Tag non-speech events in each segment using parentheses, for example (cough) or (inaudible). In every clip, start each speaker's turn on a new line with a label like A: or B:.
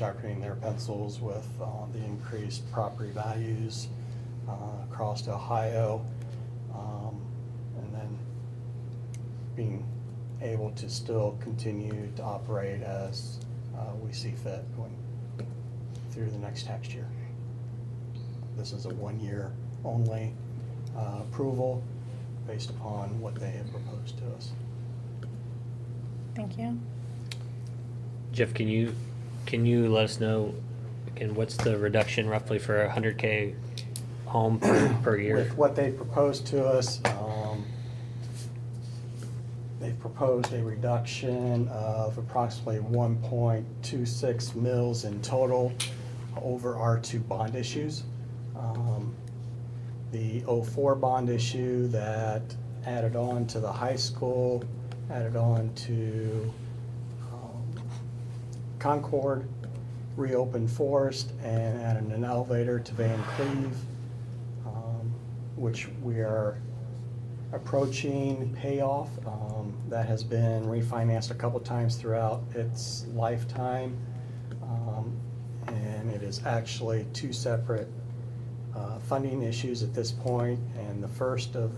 A: sharpening their pencils with uh, the increased property values uh, across Ohio. Um, And then being able to still continue to operate as uh, we see fit going through the next tax year. This is a one-year only uh, approval based upon what they have proposed to us.
B: Thank you.
C: Jeff, can you, can you let us know, again, what's the reduction roughly for a hundred K home per, per year?
A: With what they proposed to us, um, they proposed a reduction of approximately 1.26 mils in total over our two bond issues. Um, The '04 bond issue that added on to the high school, added on to um, Concord, reopened Forest, and added an elevator to Van Cleve, um, which we are approaching payoff. Um, That has been refinanced a couple times throughout its lifetime. Um, And it is actually two separate uh, funding issues at this point, and the first of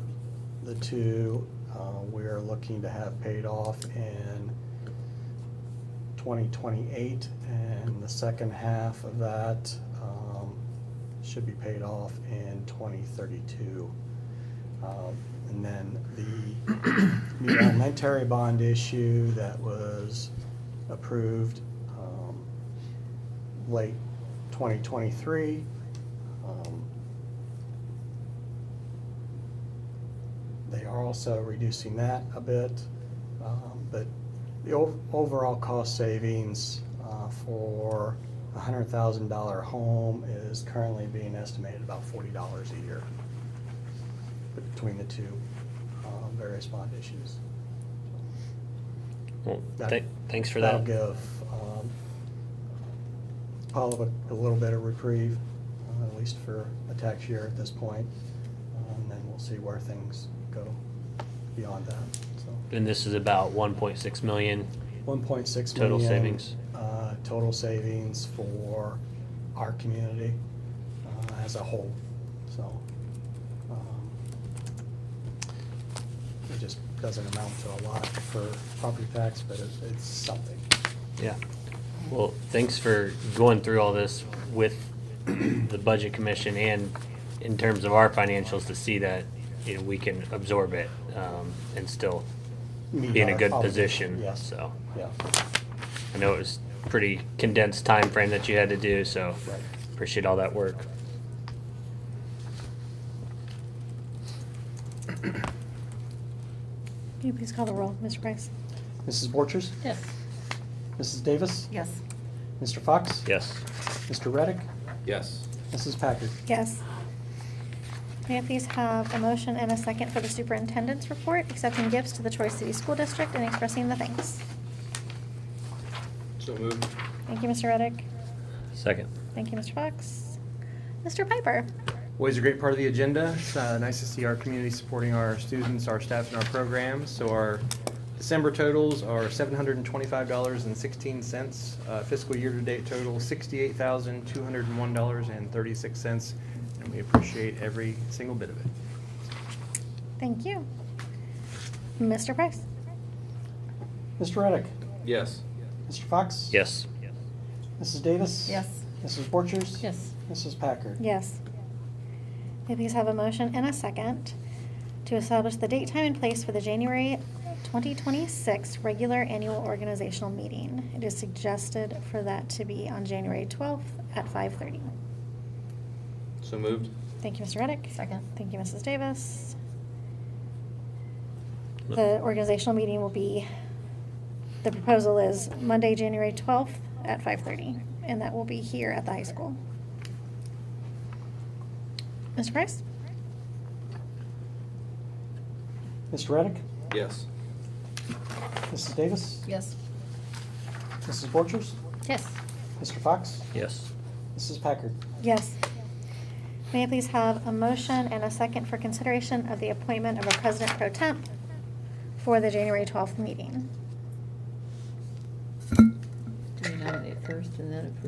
A: the two, uh, we're looking to have paid off in 2028, and the second half of that um, should be paid off in 2032. Um, And then the (clears throat) new elementary bond issue that was approved um, late 2023. um, They are also reducing that a bit, um, but the ov- overall cost savings uh, for a hundred thousand dollar home is currently being estimated about forty dollars a year between the two um, various bond issues.
C: Well,
A: That-
C: th- thanks for that.
A: That'll give um, Paula a- a little bit of reprieve, uh, at least for a tax year at this point. Uh, And then we'll see where things go beyond that, so.
C: And this is about one point six million.
A: 1.6 million.
C: Total savings.
A: uh, Total savings for our community uh, as a whole, so. um, It just doesn't amount to a lot for property tax, but it- it's something.
C: Yeah. Well, thanks for going through all this with the Budget Commission and in terms of our financials to see that, you know, we can absorb it, um, and still
A: Meet
C: be in a
A: our
C: good
A: obligation,
C: position,
A: yes.
C: so.
A: Yeah,
C: I know it was pretty condensed time frame that you had to do, so
A: Right.
C: appreciate all that work.
B: Can you please call the roll, Mr. Price?
A: Mrs. Borchers?
B: Yes.
A: Mrs. Davis?
D: Yes.
A: Mr. Fox?
C: Yes.
A: Mr. Reddick?
E: Yes.
A: Mrs. Packard?
B: Yes. May I please have a motion and a second for the superintendent's report, accepting gifts to the Troy City School District and expressing the thanks?
E: So moved.
B: Thank you, Mr. Reddick.
C: Second.
B: Thank you, Mr. Fox. Mr. Piper?
F: Always a great part of the agenda. It's uh, nice to see our community supporting our students, our staff, and our programs. So our December totals are $725.16. uh, Fiscal year-to-date total, $68,201.36. And we appreciate every single bit of it.
B: Thank you. Mr. Price?
A: Mr. Reddick?
E: Yes.
A: Mr. Fox?
C: Yes.
A: Mrs. Davis?
D: Yes.
A: Mrs. Borchers?
D: Yes.
A: Mrs. Packard?
B: Yes. May I please have a motion and a second to establish the date, time, and place for the January 2026 regular annual organizational meeting? It is suggested for that to be on January 12th at 5:30.
E: So moved.
B: Thank you, Mr. Reddick.
D: Second.
B: Thank you, Mrs. Davis. The organizational meeting will be, the proposal is Monday, January 12th at 5:30, and that will be here at the high school. Mr. Price?
A: Mr. Reddick?
E: Yes.
A: Mrs. Davis?
D: Yes.
A: Mrs. Borchers?
D: Yes.
A: Mr. Fox?
C: Yes.
A: Mrs. Packard?
B: Yes. May I please have a motion and a second for consideration of the appointment of a president pro temp for the January 12th meeting?
D: Do we nominate first and then approve?